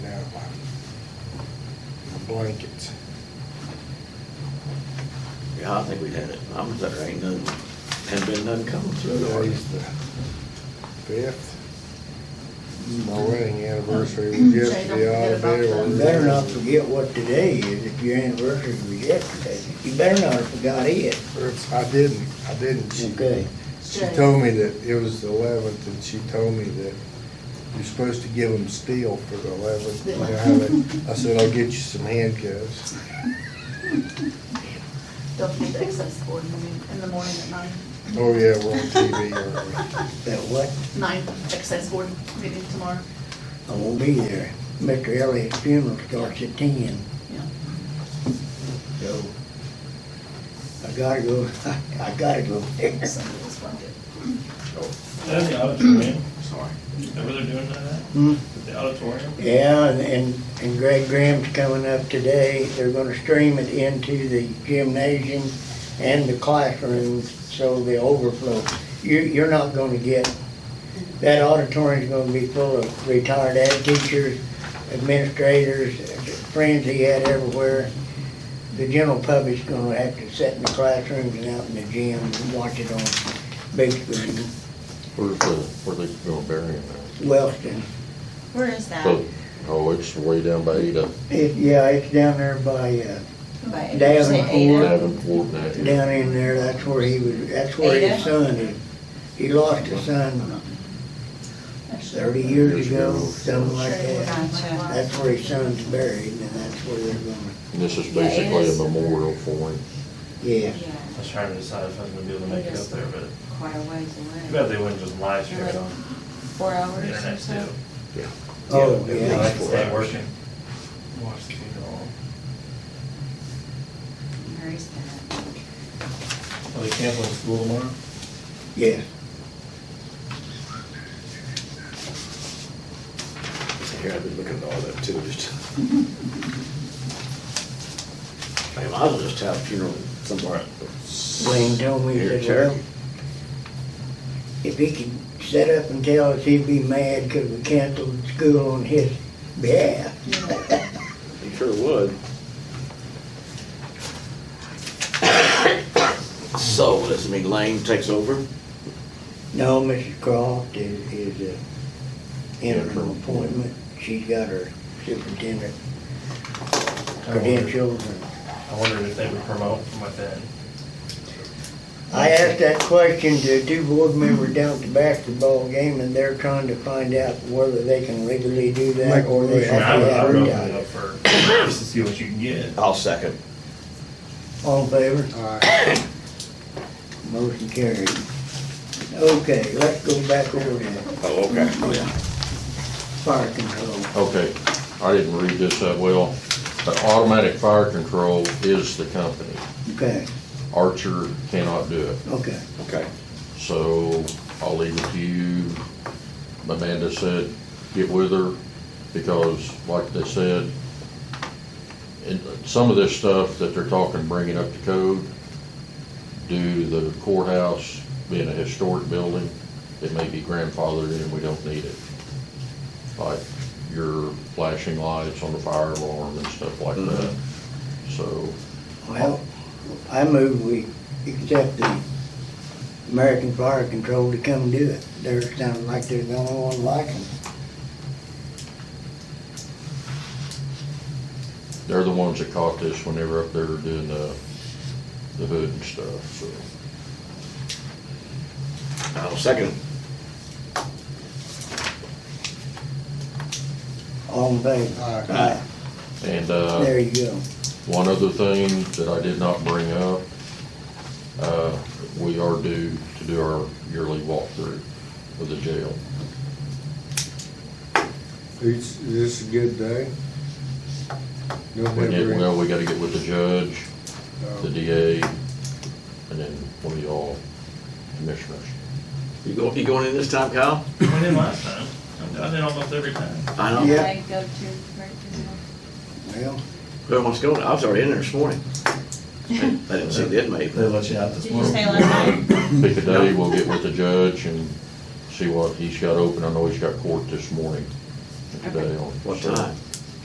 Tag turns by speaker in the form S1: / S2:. S1: blankets.
S2: Yeah, I think we've had it. I was there, ain't none, hadn't been none coming through.
S1: Today's the fifth. My wedding anniversary was yesterday, all day
S3: You
S1: on.
S3: better not forget what today is, if your anniversary was yesterday. You better not have forgot it.
S1: I didn't, I didn't. She-
S3: Okay.
S1: She told me that it was the eleventh, and she told me that you're supposed to give them steel for the eleventh. You know how they- I said, I'll get you some handcuffs.
S4: Don't forget the excess board meeting in the morning at nine,
S1: Oh, yeah, we're on TV, aren't
S3: That what?
S4: nine excess board meeting tomorrow.
S3: I won't be there. Mr. Elliott's funeral starts at ten,
S4: Yeah.
S3: so I gotta go, I gotta go there.
S4: Sunday is one good.
S2: Oh,
S5: That's the auditorium,
S1: we? Sorry.
S5: is that where they're doing that at?
S3: Hmm?
S5: The auditorium?
S3: Yeah, and- and, and Greg Graham's coming up today. They're gonna stream it into the gymnasium and the classrooms, so the overflow. You, you're not gonna get, that auditorium's gonna be full of retired ed teachers, administrators, friends he had everywhere. The general public's gonna have to sit in the classrooms and out in the gym and watch it on big screen.
S6: Where's the, where they gonna bury him at?
S3: Wellston,
S4: Where is that?
S6: So- Oh, it's way down by Ada,
S3: it, yeah, it's down there by, uh,
S4: By eight,
S3: Down
S4: say
S3: in
S4: eight
S3: Florida.
S4: hours.
S6: Davenport and that.
S3: down in there, that's where he was, that's where his
S4: Ada?
S3: son is. He lost his son thirty years ago, something like that. That's where his son's buried, and that's where they're gonna,
S6: And this is
S4: Yeah, it
S6: basically a
S4: is.
S6: memorial for him.
S3: yeah.
S5: I was trying to decide if I was gonna be able to make it up there, but
S7: quite a ways away.
S5: I bet they wouldn't just live stream it on
S4: Four
S5: the
S4: hours or
S5: internet
S4: so.
S5: too.
S3: Oh,
S5: It'd be like
S3: yeah.
S5: it's not working. Watch the funeral.
S7: Mary's gonna-
S5: Are they canceling school tomorrow?
S3: Yeah,
S2: Here, I've been looking at all that too, just. I might as well just have a funeral somewhere.
S3: Wayne told me, he
S2: Here,
S3: said,
S2: Terry.
S3: well, if he could set up and tell us, he'd be mad because we canceled school on his behalf.
S2: You sure would. So, does it mean Lane takes over?
S3: No, Mrs. Croft is, is a interim appointment. She's got her superintendent
S5: I wondered-
S3: credentials and
S5: I wondered if they would promote from within.
S3: I asked that question to two board members down at the basketball game, and they're trying to find out whether they can legally do that,
S1: Make a
S3: or they
S1: motion.
S5: I mean, I
S3: have
S5: would,
S3: to
S5: I
S3: have her
S5: would open it
S3: die.
S5: up for, just to see what you can get.
S2: I'll second.
S3: All in favor?
S1: All right,
S3: Motion carried. Okay, let's go back over to
S2: Oh, okay. Oh, yeah.
S3: fire control.
S6: Okay, I didn't read this that well, but automatic fire control is the company.
S3: Okay,
S6: Archer cannot do it,
S3: okay.
S2: Okay.
S6: so I'll leave it to you. Amanda said, get with her, because like they said, and some of this stuff that they're talking, bringing up to code, due to the courthouse being a historic building, it may be grandfathered in, we don't need it. Like your flashing lights on the fire alarm and stuff like that. So,
S3: Well, I move we accept the American Fire Control to come do it. They're sounding like they're the only one liking.
S6: they're the ones that caught this when they were up there doing the, the hood and stuff, so.
S2: I'll second.
S3: All in favor?
S1: all right.
S3: Aye.
S6: And, uh.
S3: There you go.
S6: One other thing that I did not bring up, uh, we are due to do our yearly walkthrough of the jail.
S1: Is this a good day?
S6: We get-
S1: November.
S6: Well, we gotta get with the judge, the DA, and then one of y'all commissioners.
S2: You go, you going in this time, Kyle?
S5: We did last time. I've done it almost every time.
S2: I know.
S3: Yeah.
S7: They go to, right to
S3: Well,
S2: Who wants to go? I was already in there this morning. I didn't see the inmate.
S5: They let you out
S7: the-
S5: this
S7: Did you say
S5: morning.
S7: last night?
S6: Pick a day, we'll get with the judge and see what he's got open. I know he's got court this morning, today on.
S2: What time?